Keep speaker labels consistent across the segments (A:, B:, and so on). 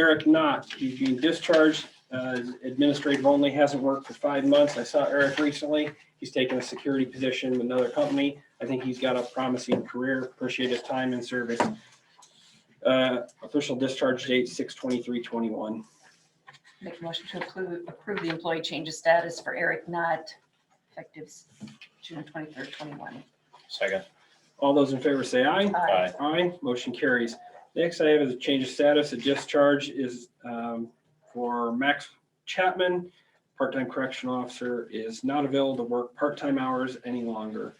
A: Eric Knott, he's being discharged, uh, administrative only, hasn't worked for five months. I saw Eric recently. He's taken a security position with another company. I think he's got a promising career. Appreciate his time and service. Uh, Official discharge date, six twenty-three twenty-one.
B: Make a motion to approve, approve the employee change of status for Eric Knott, effective s- June twenty-third, twenty-one.
C: Second.
A: All those in favor say aye.
C: Aye.
A: Aye, motion carries. Next I have is a change of status. A discharge is um, for Max Chapman. Part-time correctional officer is not available to work part-time hours any longer.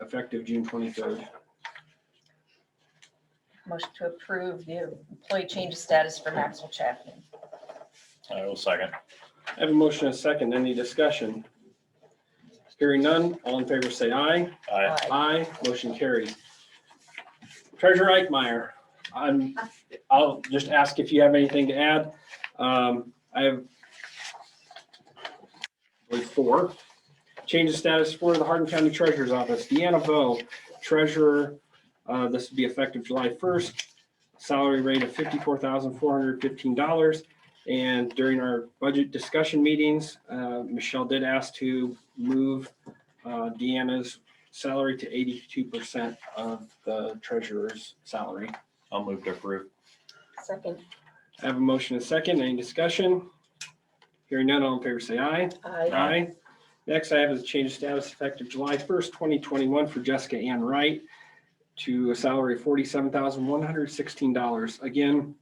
A: Effective June twenty-third.
B: Motion to approve the employee change of status for Maxwell Chapman.
C: I will second.
A: I have a motion and a second. Any discussion? Hearing none, all in favor say aye.
C: Aye.
B: Aye.
A: Aye, motion carries. Treasurer Eichmeyer, I'm, I'll just ask if you have anything to add. Um, I have with four, change of status for the Hardin County Treasurer's Office, Deanna Bo, Treasurer, uh, this would be effective July first. Salary rate of fifty-four thousand four hundred fifteen dollars. And during our budget discussion meetings, uh, Michelle did ask to move uh, Deanna's salary to eighty-two percent of the treasurer's salary.
C: I'll move to approve.
B: Second.
A: I have a motion and a second. Any discussion? Hearing none, all in favor say aye.
B: Aye.
A: Aye. Next I have is change of status effective July first, twenty twenty-one for Jessica Ann Wright to a salary of forty-seven thousand one hundred sixteen dollars. Again,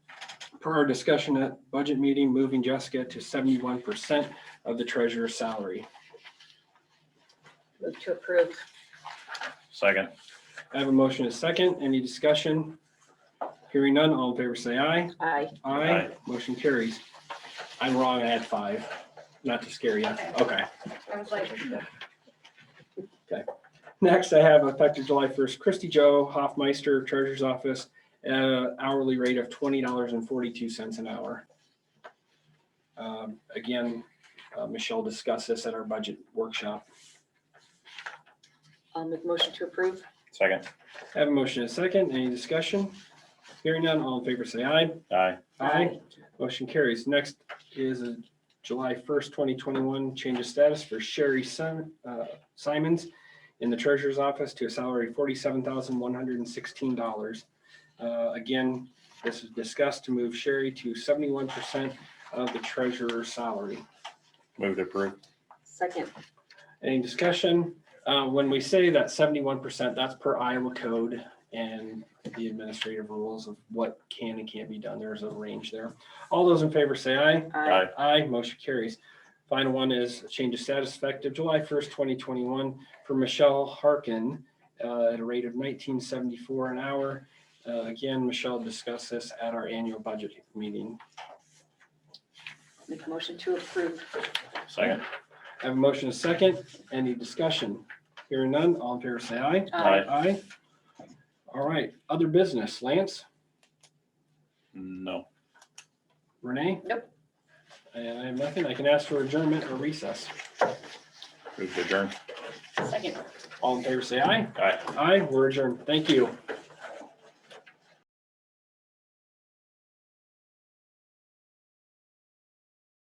A: per our discussion at budget meeting, moving Jessica to seventy-one percent of the treasurer's salary.
B: Move to approve.
C: Second.
A: I have a motion and a second. Any discussion? Hearing none, all in favor say aye.
B: Aye.
A: Aye,
C: Aye.
A: motion carries. I'm wrong, I had five, not to scare you.
B: Okay.
A: Okay.
B: I was like.
A: Next, I have effective July 1st, Christy Joe Hoffmeister, Treasurer's Office, uh, hourly rate of $20.42 an hour. Um, Again, uh, Michelle discussed this at our budget workshop.
B: I'll make motion to approve.
C: Second.
A: I Have a motion and a second, any discussion? Hearing none, all in favor say aye.
C: Aye.
A: Motion carries. Next is a July first, twenty twenty-one change of status for Sherry Sim- uh, Simons in the treasurer's office to a salary of forty-seven thousand one hundred and sixteen dollars. Uh, Again, this is discussed to move Sherry to seventy-one percent of the treasurer's salary.
C: Move to approve.
B: Second.
A: Any discussion? Uh, When we say that seventy-one percent, that's per Iowa code and the administrative rules of what can and can't be done. There's a range there. All those in favor say aye.
C: Aye.
A: Aye, motion carries. Final one is a change of status effective July first, twenty twenty-one for Michelle Harkin uh, at a rate of nineteen seventy-four an hour. Uh, Again, Michelle discussed this at our annual budget meeting.
B: Make motion to approve.
C: Second.
A: I have a motion, a second, any discussion? Hearing none, all in favor say aye.
C: Aye.
A: Aye. All right, other business, Lance,
C: No.
A: Renee?
B: Nope.
A: And I have nothing, I can ask for adjournment or recess.
C: Move to adjourn.
B: Second.
A: All in favor say aye.
C: Aye.
A: Aye, we're adjourned, thank you.